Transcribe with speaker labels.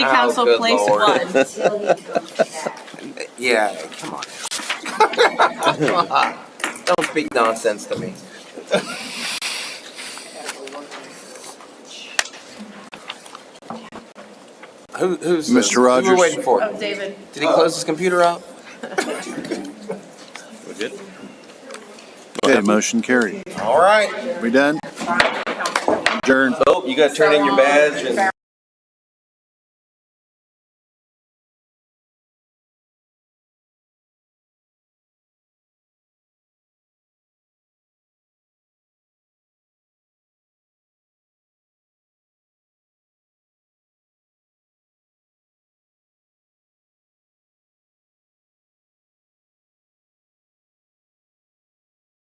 Speaker 1: Council
Speaker 2: good
Speaker 1: Place
Speaker 2: lord.
Speaker 1: One.
Speaker 2: Yeah, come on. Come on. Don't speak nonsense to me. Who, who's this?
Speaker 3: Mr.
Speaker 2: Who
Speaker 3: Rogers?
Speaker 2: we're waiting for?
Speaker 1: Oh, David.
Speaker 2: Did he close his computer out?
Speaker 3: Okay, motion carried.
Speaker 2: All right.
Speaker 3: We done? Adjourned.
Speaker 4: Oh, you gotta turn in your badge and.